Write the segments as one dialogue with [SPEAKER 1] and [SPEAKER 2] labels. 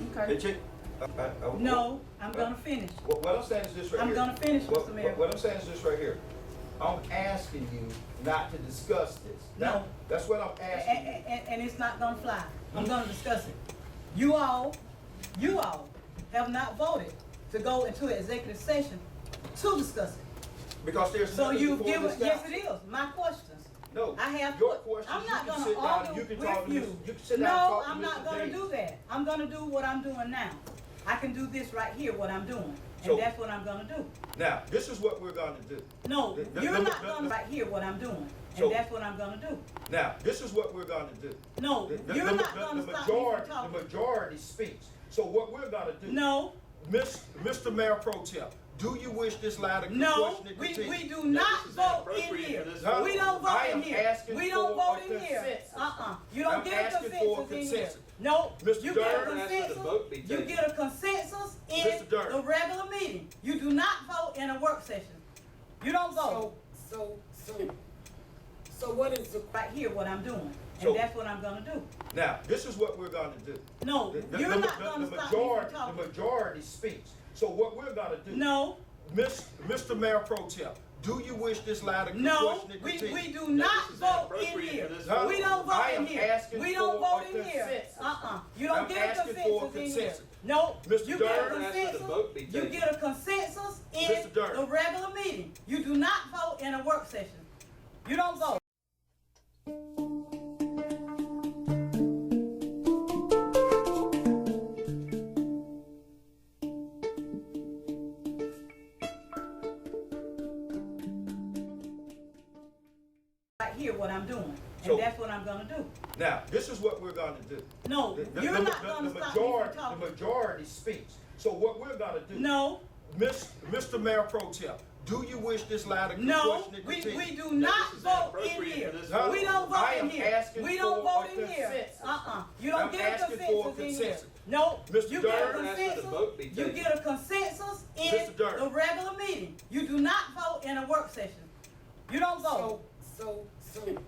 [SPEAKER 1] Hey,
[SPEAKER 2] Kurt.
[SPEAKER 1] Chick, I- I- I-
[SPEAKER 2] No, I'm gonna finish.
[SPEAKER 1] uh, What, what I'm saying is this right
[SPEAKER 2] I'm
[SPEAKER 1] here.
[SPEAKER 2] gonna finish,
[SPEAKER 1] What-
[SPEAKER 2] Mr. Mayor.
[SPEAKER 1] What, what I'm saying is this right here. I'm asking you not to discuss this.
[SPEAKER 2] No.
[SPEAKER 1] That- That's what I'm asking. you.
[SPEAKER 2] And, and, and it's not gonna fly. I'm gonna discuss it. You all, you all have not voted to go into an executive session to discuss it.
[SPEAKER 1] Because there's
[SPEAKER 2] So
[SPEAKER 1] nothing
[SPEAKER 2] you've
[SPEAKER 1] before
[SPEAKER 2] given,
[SPEAKER 1] this now.
[SPEAKER 2] yes, it is, my questions.
[SPEAKER 1] No.
[SPEAKER 2] I have,
[SPEAKER 1] Your
[SPEAKER 2] put-
[SPEAKER 1] questions,
[SPEAKER 2] I'm
[SPEAKER 1] you
[SPEAKER 2] not
[SPEAKER 1] can
[SPEAKER 2] gonna
[SPEAKER 1] sit down and
[SPEAKER 2] argue
[SPEAKER 1] you can talk
[SPEAKER 2] with
[SPEAKER 1] to
[SPEAKER 2] you.
[SPEAKER 1] Mr. You can sit down and
[SPEAKER 2] No,
[SPEAKER 1] talk to
[SPEAKER 2] I'm
[SPEAKER 1] Mr.
[SPEAKER 2] not gonna
[SPEAKER 1] Davis.
[SPEAKER 2] do that. I'm gonna do what I'm doing now. I can do this right here, what I'm doing,
[SPEAKER 1] So-
[SPEAKER 2] and that's what I'm gonna do.
[SPEAKER 1] Now, this is what we're gonna do.
[SPEAKER 2] No,
[SPEAKER 1] Th- th-
[SPEAKER 2] you're
[SPEAKER 1] th-
[SPEAKER 2] not
[SPEAKER 1] th-
[SPEAKER 2] gonna
[SPEAKER 1] th-
[SPEAKER 2] right here what I'm doing,
[SPEAKER 1] So-
[SPEAKER 2] and that's what I'm gonna do.
[SPEAKER 1] Now, this is what we're gonna do.
[SPEAKER 2] No,
[SPEAKER 1] The- the-
[SPEAKER 2] you're
[SPEAKER 1] the-
[SPEAKER 2] not
[SPEAKER 1] the-
[SPEAKER 2] gonna
[SPEAKER 1] the
[SPEAKER 2] stop me from
[SPEAKER 1] majority- The
[SPEAKER 2] talking.
[SPEAKER 1] majority speaks. So what we're gonna do.
[SPEAKER 2] No,
[SPEAKER 1] Miss, Mr. Mayor Pro Tem, do you wish this line of
[SPEAKER 2] no,
[SPEAKER 1] questioning
[SPEAKER 2] we,
[SPEAKER 1] continued?
[SPEAKER 2] we do not
[SPEAKER 3] is
[SPEAKER 2] vote in
[SPEAKER 3] inappropriate
[SPEAKER 2] here.
[SPEAKER 3] for this
[SPEAKER 1] No,
[SPEAKER 2] We don't vote
[SPEAKER 1] I
[SPEAKER 2] in
[SPEAKER 1] am
[SPEAKER 2] here.
[SPEAKER 1] asking
[SPEAKER 2] We don't
[SPEAKER 1] for
[SPEAKER 2] vote
[SPEAKER 1] a
[SPEAKER 2] in here.
[SPEAKER 1] consensus.
[SPEAKER 2] Uh-uh, you
[SPEAKER 1] I'm
[SPEAKER 2] don't get a
[SPEAKER 1] asking for a
[SPEAKER 2] consensus in here.
[SPEAKER 1] consensus.
[SPEAKER 2] No,
[SPEAKER 1] Mr.
[SPEAKER 2] you get a
[SPEAKER 1] Dern,
[SPEAKER 3] ask that the vote be
[SPEAKER 2] consensus, you
[SPEAKER 3] taken.
[SPEAKER 2] get a consensus in
[SPEAKER 1] Mr. Dern.
[SPEAKER 2] the regular meeting. You do not vote in a work session. You don't
[SPEAKER 4] So,
[SPEAKER 2] vote
[SPEAKER 4] so, so, so what is the,
[SPEAKER 2] right here what I'm doing,
[SPEAKER 1] So-
[SPEAKER 2] and that's what I'm gonna do.
[SPEAKER 1] Now, this is what we're gonna do.
[SPEAKER 2] No,
[SPEAKER 1] The- the-
[SPEAKER 2] you're
[SPEAKER 1] the-
[SPEAKER 2] not
[SPEAKER 1] the- the
[SPEAKER 2] gonna stop me from
[SPEAKER 1] majority- The
[SPEAKER 2] talking.
[SPEAKER 1] majority speaks. So what we're gonna do.
[SPEAKER 2] No,
[SPEAKER 1] Miss, Mr. Mayor Pro Tem, do you wish this line of
[SPEAKER 2] No,
[SPEAKER 1] questioning
[SPEAKER 2] we,
[SPEAKER 1] continued?
[SPEAKER 2] we do not
[SPEAKER 3] is
[SPEAKER 2] vote
[SPEAKER 3] inappropriate
[SPEAKER 2] in
[SPEAKER 3] for
[SPEAKER 2] here.
[SPEAKER 3] this
[SPEAKER 1] No,
[SPEAKER 2] We don't vote
[SPEAKER 1] I
[SPEAKER 2] in
[SPEAKER 1] am
[SPEAKER 2] here.
[SPEAKER 1] asking
[SPEAKER 2] We don't
[SPEAKER 1] for
[SPEAKER 2] vote
[SPEAKER 1] a
[SPEAKER 2] in here.
[SPEAKER 1] consensus.
[SPEAKER 2] Uh-uh. You
[SPEAKER 1] I'm
[SPEAKER 2] don't get a
[SPEAKER 1] asking for a
[SPEAKER 2] consensus in here.
[SPEAKER 1] consensus.
[SPEAKER 2] No,
[SPEAKER 1] Mr.
[SPEAKER 2] you get a
[SPEAKER 1] Dern
[SPEAKER 3] asked that the vote be
[SPEAKER 2] consensus. You
[SPEAKER 3] taken.
[SPEAKER 2] get a consensus in
[SPEAKER 1] Mr. Dern.
[SPEAKER 2] the regular meeting. You do not vote in a work session. You don't vote. Right here, what I'm doing,
[SPEAKER 1] So-
[SPEAKER 2] and that's what I'm gonna do.
[SPEAKER 1] Now, this is what we're gonna do.
[SPEAKER 2] No,
[SPEAKER 1] The- the-
[SPEAKER 2] you're
[SPEAKER 1] the-
[SPEAKER 2] not
[SPEAKER 1] the-
[SPEAKER 2] gonna
[SPEAKER 1] the
[SPEAKER 2] stop me from
[SPEAKER 1] majority- The
[SPEAKER 2] talking.
[SPEAKER 1] majority speaks. So what we're gonna do.
[SPEAKER 2] No,
[SPEAKER 1] Miss, Mr. Mayor Pro Tem, do you wish this line of
[SPEAKER 2] No,
[SPEAKER 1] questioning
[SPEAKER 2] we,
[SPEAKER 1] continued?
[SPEAKER 2] we do not
[SPEAKER 3] this is
[SPEAKER 2] vote in
[SPEAKER 3] inappropriate
[SPEAKER 2] here.
[SPEAKER 3] for this
[SPEAKER 1] No,
[SPEAKER 2] We don't vote
[SPEAKER 1] I
[SPEAKER 2] in
[SPEAKER 1] am
[SPEAKER 2] here.
[SPEAKER 1] asking
[SPEAKER 2] We don't
[SPEAKER 1] for
[SPEAKER 2] vote
[SPEAKER 1] a
[SPEAKER 2] in here.
[SPEAKER 1] consensus.
[SPEAKER 2] Uh-uh, you
[SPEAKER 1] I'm
[SPEAKER 2] don't get a
[SPEAKER 1] asking for a
[SPEAKER 2] consensus in here.
[SPEAKER 1] consensus.
[SPEAKER 2] No,
[SPEAKER 1] Mr.
[SPEAKER 2] you get a
[SPEAKER 1] Dern
[SPEAKER 3] asked that the vote be
[SPEAKER 2] consensus, you
[SPEAKER 3] taken.
[SPEAKER 2] get a consensus in
[SPEAKER 1] Mr. Dern.
[SPEAKER 2] the regular meeting. You do not vote in a work session. You don't
[SPEAKER 4] so,
[SPEAKER 2] vote.
[SPEAKER 4] so, so,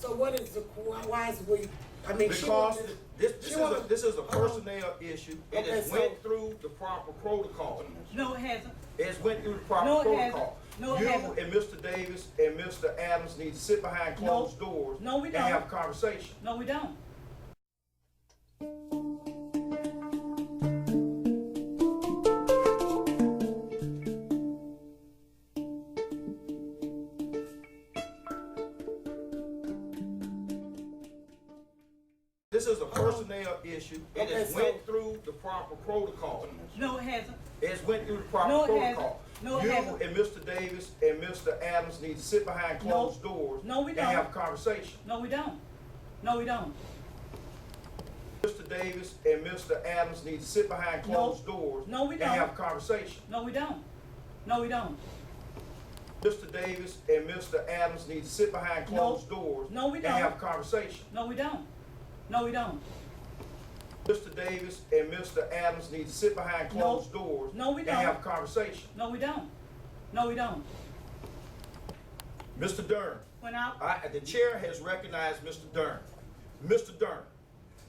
[SPEAKER 4] so what is the, why is we, I mean, she
[SPEAKER 1] Because
[SPEAKER 4] wanted.
[SPEAKER 1] this, this is
[SPEAKER 4] she wanted-
[SPEAKER 1] a, this is a
[SPEAKER 4] um,
[SPEAKER 1] personnel issue. It
[SPEAKER 4] okay,
[SPEAKER 1] has
[SPEAKER 4] so-
[SPEAKER 1] went through the proper protocol.
[SPEAKER 2] No, it hasn't.
[SPEAKER 1] It has went through the proper
[SPEAKER 2] No, it hasn't.
[SPEAKER 1] protocol.
[SPEAKER 2] No, it
[SPEAKER 1] You
[SPEAKER 2] hasn't.
[SPEAKER 1] and Mr. Davis and Mr. Adams need to sit behind closed
[SPEAKER 2] No.
[SPEAKER 1] doors.
[SPEAKER 2] No, we don't.
[SPEAKER 1] And have a conversation.
[SPEAKER 2] No, we don't.
[SPEAKER 1] This
[SPEAKER 2] Uh-uh.
[SPEAKER 1] is a personnel issue. It
[SPEAKER 4] Okay,
[SPEAKER 1] has
[SPEAKER 4] so-
[SPEAKER 1] went through the proper protocol.
[SPEAKER 2] No, it hasn't.
[SPEAKER 1] It has went through the proper
[SPEAKER 2] No, it hasn't.
[SPEAKER 1] protocol.
[SPEAKER 2] No, it
[SPEAKER 1] You
[SPEAKER 2] hasn't.
[SPEAKER 1] and Mr. Davis and Mr. Adams need to sit behind
[SPEAKER 2] No.
[SPEAKER 1] closed doors.
[SPEAKER 2] No, we don't.
[SPEAKER 1] And have a conversation.
[SPEAKER 2] No, we don't. No, we don't.
[SPEAKER 1] Mr. Davis and Mr. Adams need to sit behind
[SPEAKER 2] No.
[SPEAKER 1] closed doors.
[SPEAKER 2] No, we
[SPEAKER 1] And
[SPEAKER 2] don't.
[SPEAKER 1] have a conversation.
[SPEAKER 2] No, we don't. No, we don't.
[SPEAKER 1] Mr. Davis and Mr. Adams need to sit behind
[SPEAKER 2] No.
[SPEAKER 1] closed doors.
[SPEAKER 2] No, we don't.
[SPEAKER 1] And have a conversation.
[SPEAKER 2] No, we don't. No, we don't.
[SPEAKER 1] Mr. Davis and Mr. Adams need to sit behind
[SPEAKER 2] No.
[SPEAKER 1] closed doors.
[SPEAKER 2] No, we don't.
[SPEAKER 1] And have a conversation.
[SPEAKER 2] No, we don't. No, we don't.
[SPEAKER 1] Mr. Dern,
[SPEAKER 2] When I,
[SPEAKER 1] I, the chair has recognized Mr. Dern. Mr. Dern,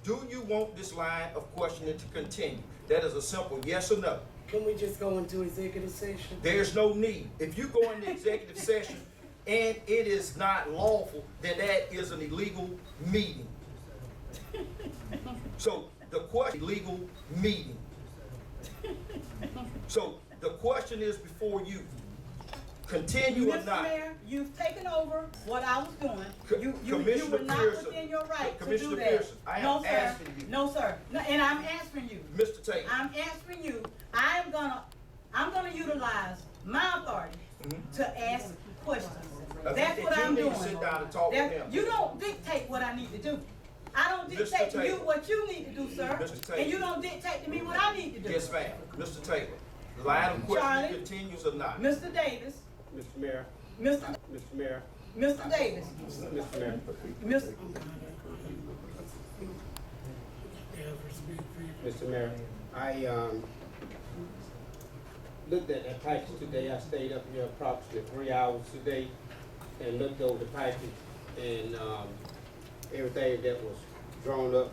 [SPEAKER 1] do you want this line of questioning to continue? That is a simple yes or no.
[SPEAKER 4] Can we just go into executive session?
[SPEAKER 1] There's no need. If you go into executive session and it is not lawful, then that is an illegal meeting. So the question, illegal meeting. So the question is before you, continue or
[SPEAKER 2] Mr.
[SPEAKER 1] not?
[SPEAKER 2] Mayor, you've taken over what I was
[SPEAKER 1] Co-
[SPEAKER 2] doing. You, you, you
[SPEAKER 1] Commissioner
[SPEAKER 2] were not
[SPEAKER 1] Pearson.
[SPEAKER 2] within your right to
[SPEAKER 1] Commissioner
[SPEAKER 2] do that.
[SPEAKER 1] Pearson, I am
[SPEAKER 2] No, sir.
[SPEAKER 1] asking you.
[SPEAKER 2] No, sir. No, And I'm answering you.
[SPEAKER 1] Mr. Taylor,
[SPEAKER 2] I'm answering you. I am gonna, I'm gonna utilize my authority to ask questions.
[SPEAKER 1] Okay,
[SPEAKER 2] That's
[SPEAKER 1] and
[SPEAKER 2] what
[SPEAKER 1] Mm-hmm. you
[SPEAKER 2] I'm
[SPEAKER 1] need to
[SPEAKER 2] doing.
[SPEAKER 1] sit down and talk with
[SPEAKER 2] That-
[SPEAKER 1] him.
[SPEAKER 2] You don't dictate what I need to do. I don't
[SPEAKER 1] Mr.
[SPEAKER 2] dictate to you
[SPEAKER 1] Taylor.
[SPEAKER 2] what you need to do, sir.
[SPEAKER 1] Mr. Taylor.
[SPEAKER 2] And you don't dictate to me what I need to do.
[SPEAKER 1] yes ma'am, Mr. Taylor, line of questioning
[SPEAKER 2] Charlie.
[SPEAKER 1] continues or not?
[SPEAKER 2] Mr. Davis,
[SPEAKER 5] Mr. Mayor,
[SPEAKER 2] Mr.
[SPEAKER 5] Mr. Mayor,
[SPEAKER 2] Mr. Davis,
[SPEAKER 5] Mr. Mayor.
[SPEAKER 2] Mr.
[SPEAKER 5] Mr. Mayor, I, um, looked at that package today, I stayed up here approximately three hours today and looked over the package and, um, everything that was drawn up